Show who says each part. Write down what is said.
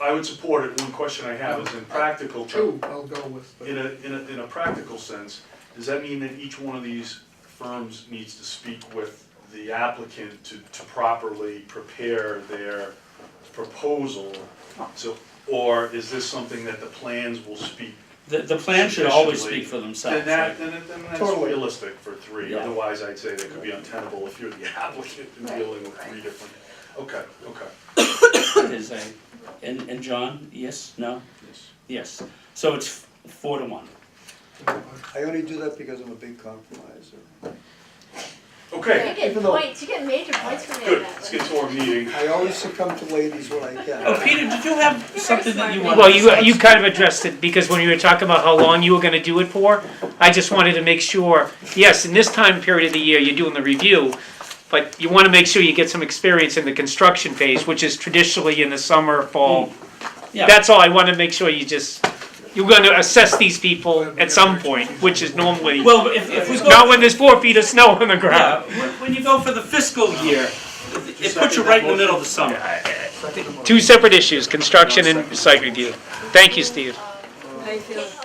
Speaker 1: I would support it, one question I have is in practical,
Speaker 2: Two, I'll go with, but
Speaker 1: in a, in a, in a practical sense, does that mean that each one of these firms needs to speak with the applicant to, to properly prepare their proposal? So, or is this something that the plans will speak?
Speaker 3: The, the plan should always
Speaker 1: Sufficiently.
Speaker 3: speak for themselves,
Speaker 1: Then that,
Speaker 3: right?
Speaker 1: then it- then that's
Speaker 2: Totally.
Speaker 1: realistic for three,
Speaker 3: Yeah.
Speaker 1: otherwise I'd say that could be untenable if you're the applicant and
Speaker 4: Right,
Speaker 1: dealing with three
Speaker 4: right.
Speaker 1: different, okay, okay.
Speaker 3: Is a, and, and John, yes, no,
Speaker 1: Yes.
Speaker 3: yes, so it's four to one.
Speaker 5: I only do that because I'm a big compromiser.
Speaker 1: Okay,
Speaker 4: You get
Speaker 5: Even though-
Speaker 4: points, you get major points for
Speaker 1: good,
Speaker 4: doing that.
Speaker 1: let's get to our meeting.
Speaker 5: I always succumb to ladies when I can.
Speaker 3: Oh, Peter, did you have something that you
Speaker 4: smart.
Speaker 3: wanted?
Speaker 6: Well,
Speaker 3: to
Speaker 6: you,
Speaker 3: say?
Speaker 6: you kind of addressed it, because when you were talking about how long you were gonna do it for, I just wanted to make sure, yes, in this time period of the year, you're doing the review, but you wanna make sure you get some experience in the construction phase, which is traditionally in the summer, fall.
Speaker 3: Mm. Yeah.
Speaker 6: That's all, I wanna make sure you just, you're gonna assess these people at some point, which is normally,
Speaker 3: Well, if, if we go.
Speaker 6: not when there's four feet of snow on the
Speaker 3: Yeah,
Speaker 6: ground.
Speaker 3: when, when you go for the fiscal year, it- it puts you right in the middle of the summer.
Speaker 6: Two separate issues, construction and site review. Thank you, Steve.
Speaker 4: Um,
Speaker 7: I feel